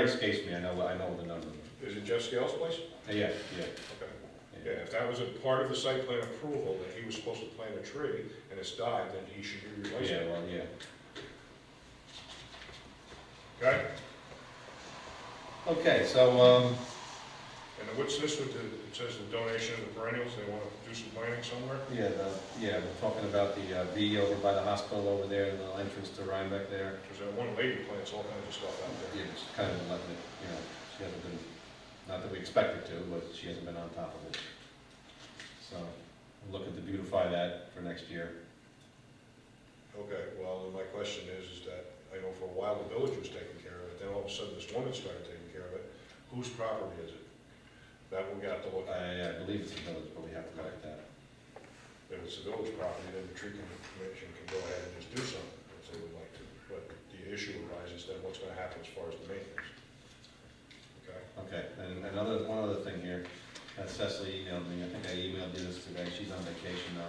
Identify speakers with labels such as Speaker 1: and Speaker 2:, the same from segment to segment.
Speaker 1: It escapes me, I know, I know the number.
Speaker 2: Is it Jeff Scales' place?
Speaker 1: Uh, Yeah, yeah.
Speaker 2: Okay. Yeah, if that was a part of the site plan approval, that he was supposed to plant a tree and it's died, then he should be replaced.
Speaker 1: Yeah, well, yeah.
Speaker 2: Okay?
Speaker 1: Okay, so, um,
Speaker 2: And then what's this with the, it says the donation of the perennials, they want to do some planting somewhere?
Speaker 1: yeah, the, yeah, we're talking about the uh, V over by the hospital over there, the entrance to Rhinebeck there.
Speaker 2: Because that one lady plants all kinds of stuff out there.
Speaker 1: Yeah, just kind of letting it, you know, she hasn't been, not that we expect her to, but she hasn't been on top of it. So, we're looking to beautify that for next year.
Speaker 2: Okay, well, then my question is, is that, I know for a while the village was taking care of it, then all of a sudden this woman started taking care of it. Whose property is it? That we got to look at.
Speaker 1: I, I believe it's a village, but we have to look at that.
Speaker 2: If it's the village property, then the tree commission can go ahead and just do something if they would like to. But the issue arises then what's gonna happen as far as the maintenance? Okay?
Speaker 1: Okay, and another, one other thing here, Uh, Cecily emailed me, I think I emailed you this today, she's on vacation now.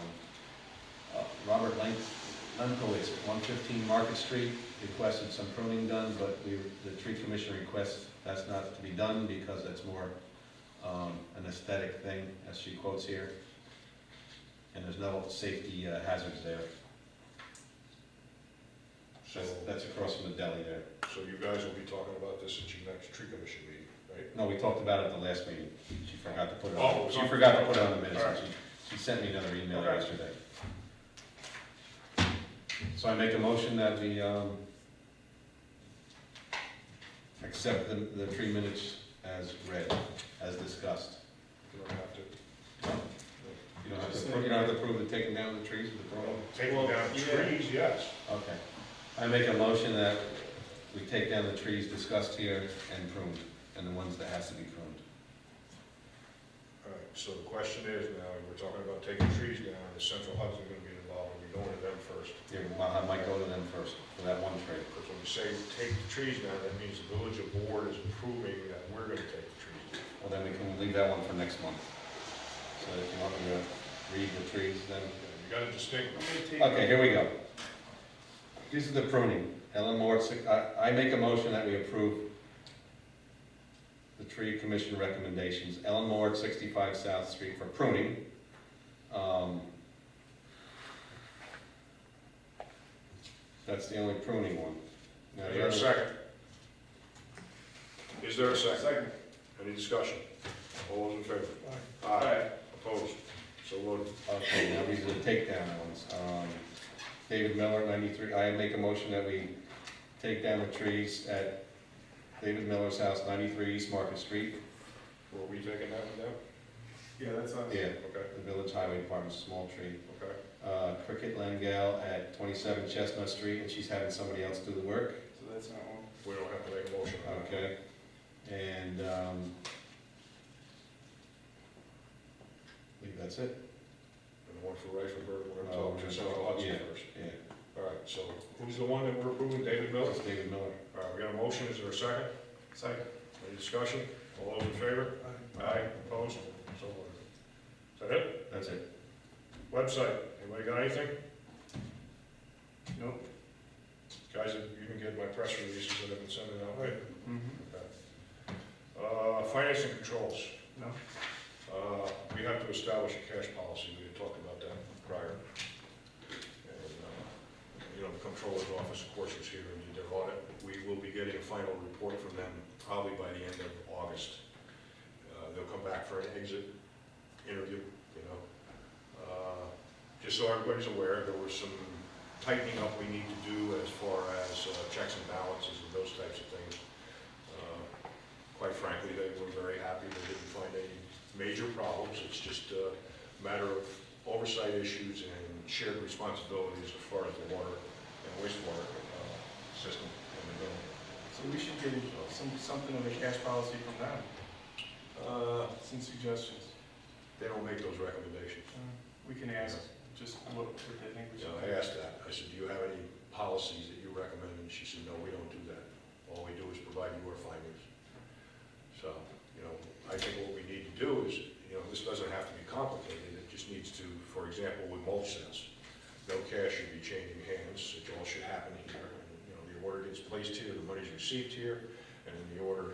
Speaker 1: Uh, Robert Lenk, Lenkowitz, one fifteen Market Street, requested some pruning done, but we, the tree commission requests that's not to be done because that's more, um, an aesthetic thing, as she quotes here. And there's no safety uh, hazards there.
Speaker 2: So,
Speaker 1: That's, that's across from the deli there.
Speaker 2: so you guys will be talking about this at your next tree commission meeting, right?
Speaker 1: No, we talked about it at the last meeting. She forgot to put it
Speaker 2: Oh, it
Speaker 1: on,
Speaker 2: was
Speaker 1: she
Speaker 2: on-
Speaker 1: forgot to put it on the minutes.
Speaker 2: Alright.
Speaker 1: She, she sent me another email
Speaker 2: Okay.
Speaker 1: yesterday. So I make a motion that we, um, accept the, the three minutes as read, as discussed.
Speaker 2: You don't have to.
Speaker 1: You don't have to, pro- you don't have to prove the taking down of the trees with the problem?
Speaker 2: Taking down trees, yes.
Speaker 1: Okay. I make a motion that we take down the trees discussed here and pruned, and the ones that has to be pruned.
Speaker 2: All right, so the question is now, we're talking about taking trees down, is Central Hudson gonna be involved, are we going to them first?
Speaker 1: Yeah, well, I might go to them first for that one tree.
Speaker 2: Because when you say take the trees down, that means the village board is approving that we're gonna take the trees down.
Speaker 1: Well, then we can leave that one for next month. So if you want me to read the trees, then,
Speaker 2: You gotta distinguish.
Speaker 1: okay, here we go. This is the pruning. Ellen Moore, six- I, I make a motion that we approve the tree commission recommendations. Ellen Moore, at sixty-five South Street for pruning. Um, That's the only pruning one. Now,
Speaker 2: Is
Speaker 1: the
Speaker 2: there a
Speaker 1: other-
Speaker 2: second? Is there a second? Any discussion? All those in favor? Aye. Opposed? So voted.
Speaker 1: Okay, now these are the takedown ones. Um, David Miller, ninety-three, I make a motion that we take down the trees at David Miller's house, ninety-three East Market Street.
Speaker 2: Were we taking that one down?
Speaker 3: Yeah, that's us.
Speaker 1: Yeah,
Speaker 2: Okay,
Speaker 1: the Village Highway Department's small tree.
Speaker 2: okay.
Speaker 1: Uh, Cricket Langell at twenty-seven Chestnut Street, and she's having somebody else do the work,
Speaker 3: So that's not one.
Speaker 2: We don't have to make a motion on that.
Speaker 1: okay? And, um, I think that's it,
Speaker 2: And the one for Reifenberg, we're gonna
Speaker 1: Oh,
Speaker 2: talk
Speaker 1: we're
Speaker 2: to
Speaker 1: gonna
Speaker 2: Central
Speaker 1: talk-
Speaker 2: Hudson
Speaker 1: yeah.
Speaker 2: first.
Speaker 1: yeah.
Speaker 2: All right, so who's the one that we're approving? David Miller?
Speaker 1: That's David Miller.
Speaker 2: All right, we got a motion, is there a second?
Speaker 3: Second.
Speaker 2: Any discussion? All those in favor? Aye. Opposed? So voted. Is that it?
Speaker 1: That's it.
Speaker 2: Website, anybody got anything?
Speaker 3: Nope.
Speaker 2: Guys, you can get my press releases that I've been sending out, right? Uh, financing controls,
Speaker 3: No.
Speaker 2: uh, we have to establish a cash policy, we had talked about that prior. And, uh, you know, the controller's office, of course, was here and did their audit, we will be getting a final report from them probably by the end of August. Uh, they'll come back for an exit interview, you know. Uh, Just so everybody's aware, there was some tightening up we need to do as far as uh, checks and balances and those types of things. Uh, quite frankly, they were very happy, they didn't find any major problems, it's just a matter of oversight issues and shared responsibilities as far as the water and wastewater uh, system in the building.
Speaker 3: So we should get some, something of a cash policy from them,
Speaker 2: Uh,
Speaker 3: some suggestions.
Speaker 2: They don't make those recommendations.
Speaker 3: Uh, We can ask just what, what they think we
Speaker 2: So
Speaker 3: should.
Speaker 2: I asked that, I said, do you have any policies that you recommend? And she said, no, we don't do that. All we do is provide your findings. So, you know, I think what we need to do is, you know, this doesn't have to be complicated, it just needs to, for example, with mulch sales, no cash should be changing hands, it all should happen here. And, You know, the order gets placed here, the money's received here, and and the order